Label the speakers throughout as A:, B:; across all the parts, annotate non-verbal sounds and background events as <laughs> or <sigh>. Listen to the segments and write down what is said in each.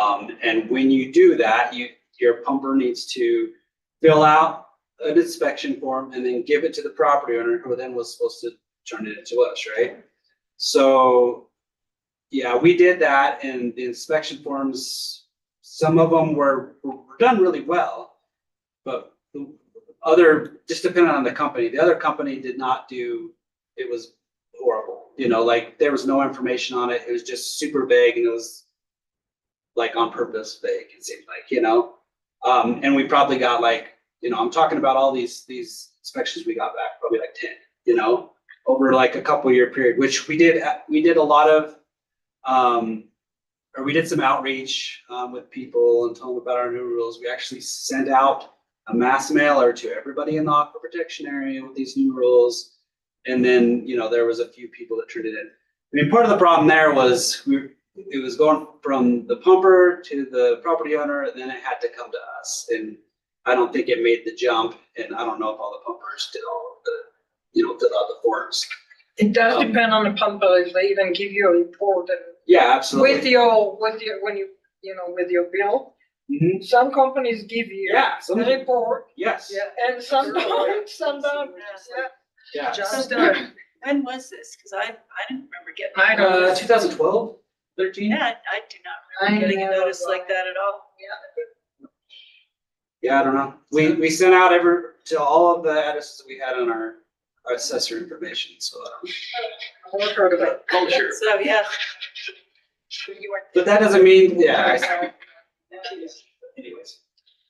A: Um, and when you do that, you, your pumper needs to fill out an inspection form and then give it to the property owner, who then was supposed to turn it into us, right? So, yeah, we did that and the inspection forms, some of them were, were done really well. But the other, just depending on the company, the other company did not do, it was horrible. You know, like there was no information on it. It was just super vague and it was like on purpose vague, it seemed like, you know? Um, and we probably got like, you know, I'm talking about all these, these inspections we got back, probably like ten, you know? Over like a couple year period, which we did, uh, we did a lot of, um, or we did some outreach, um, with people and told them about our new rules. We actually sent out a mass mailer to everybody in the aquifer protection area with these new rules. And then, you know, there was a few people that turned it in. I mean, part of the problem there was we, it was going from the pumper to the property owner, and then it had to come to us. And I don't think it made the jump, and I don't know if all the pumpers did all of the, you know, did all the forms.
B: It does
A: Um,
B: depend on the pumper, if they even give you a report and
A: Yeah,
B: with
A: absolutely.
B: your, with your, when you, you know, with your bill.
A: Mhm.
B: Some companies give you
A: Yeah,
B: a
A: some,
B: report,
A: yes,
B: yeah, and some
C: Sure.
B: don't, <laughs> some don't, yeah.
A: yeah.
B: Just
C: So-
B: done.
C: When was this? Cause I, I didn't remember getting.
B: I don't-
A: Uh, 2012, 13?
C: Yeah, I- I do not remember
B: I
C: getting a
B: know,
C: notice like
B: right.
C: that at all.
A: Yeah, I don't know. We, we sent out every, to all of the addresses we had on our our assessor information, so. I don't-
B: I've heard of it.
A: Culture.
C: So,
B: <laughs>
C: yeah. You weren't
A: But that doesn't mean, yeah.
B: <laughs>
A: I- Anyways.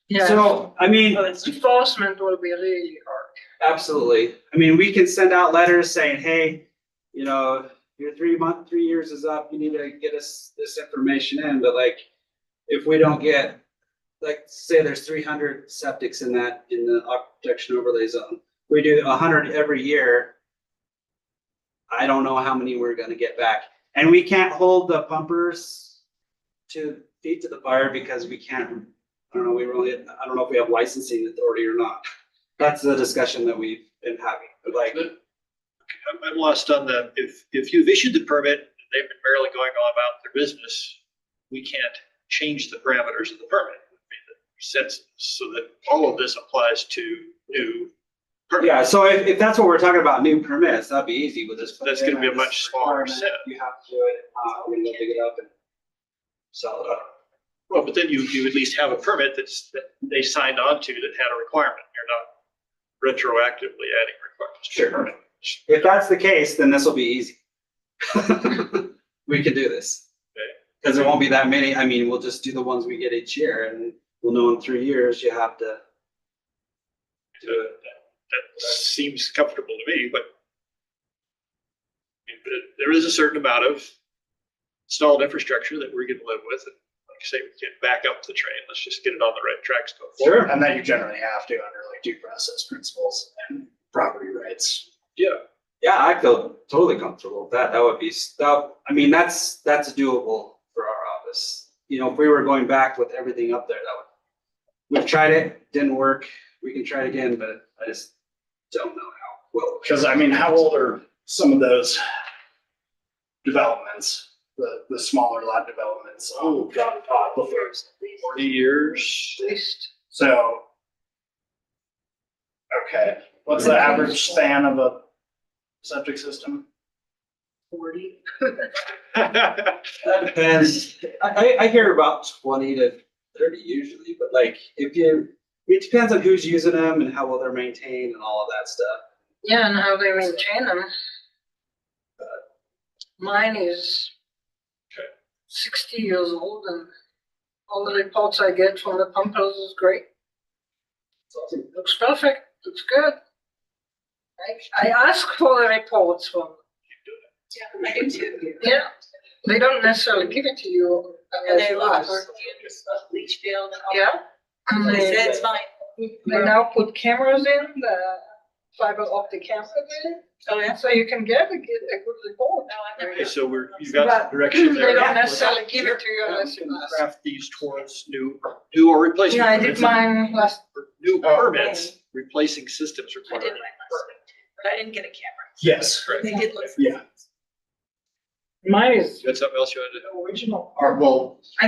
B: Yeah,
A: So, I mean,
C: Oh, it's-
B: enforcement will be really hard.
A: absolutely. I mean, we can send out letters saying, hey, you know, your three month, three years is up, you need to get us this information in, but like, if we don't get, like, say there's three hundred septics in that, in the aquifer protection overlay zone, we do hundred every year. I don't know how many we're gonna get back, and we can't hold the pumpers to feet to the fire because we can't, I don't know, we really, I don't know if we have licensing authority or not. That's the discussion that we've been having, but like,
D: I'm, I'm lost on the, if, if you've issued the permit, and they've been barely going on about their business, we can't change the parameters of the permit. would be the Sense, so that all of this applies to new permits.
A: Yeah, so if, if that's what we're talking about, new permits, that'd be easy with this.
D: That's gonna be a much smaller set.
A: You have to do it, uh, we're gonna dig it up and sell it up.
D: Well, but then you, you at least have a permit that's, that they signed on to that had a requirement. You're not retroactively adding requirements to
A: Sure.
D: the permit.
A: If that's the case, then this will be easy. <laughs> We could do this.
D: Okay.
A: Cause there won't be that many, I mean, we'll just do the ones we get each year and we'll know in three years you have to.
D: So That that seems comfortable to me, but but there is a certain amount of installed infrastructure that we're gonna live with. And Like I say, we can't back up the train. Let's just get it on the right tracks. going forward.
E: And that you generally have to under like due process principles and property rights.
D: Yeah,
A: Yeah, I feel totally comfortable with that. That would be stuff, I mean, that's, that's doable for our office. You know, if we were going back with everything up there, that would, we've tried it, didn't work. We can try it again, but I just don't know how well.
E: Because I mean, how old are some of those developments, the, the smaller lot developments? Oh, God. Before
D: forty years.
B: At least,
E: So. Okay, what's the average span of a septic system?
B: forty.
D: <laughs>
A: That depends. I, I, I hear about twenty to thirty usually, but like if you, it depends on who's using them and how well they're maintained and all of that stuff.
B: Yeah, and how they maintain them. Mine is
D: Okay.
B: sixty years old and all the reports I get from the pumpers is great.
A: It's awesome.
B: Looks perfect, looks good. I, I ask for the reports from,
C: Yeah, I do too.
B: yeah, they don't necessarily give it to you
C: And
B: unless
C: they
B: you
C: look
B: ask.
C: for fumes of leach field and all.
B: Yeah. And
C: They
B: they,
C: said it's fine.
B: they now put cameras in, the fiber optic cameras in,
C: Oh, yeah.
B: so you can get a, get a good report.
C: No, I've never.
D: Okay, so we're, you got some
B: They
D: direction there.
B: don't
A: Yeah.
B: necessarily give it to you unless you ask.
D: Craft these towards new, new or replacement.
B: Yeah, I did
D: permits.
B: mine last,
D: New
E: Oh.
D: permits, replacing systems
C: I did mine
D: required.
C: last week, but I didn't get a camera.
E: Yes.
D: Correct.
C: They did look.
E: Yeah.
B: mine is
D: You had something else you wanted to?
B: original.
E: Or well,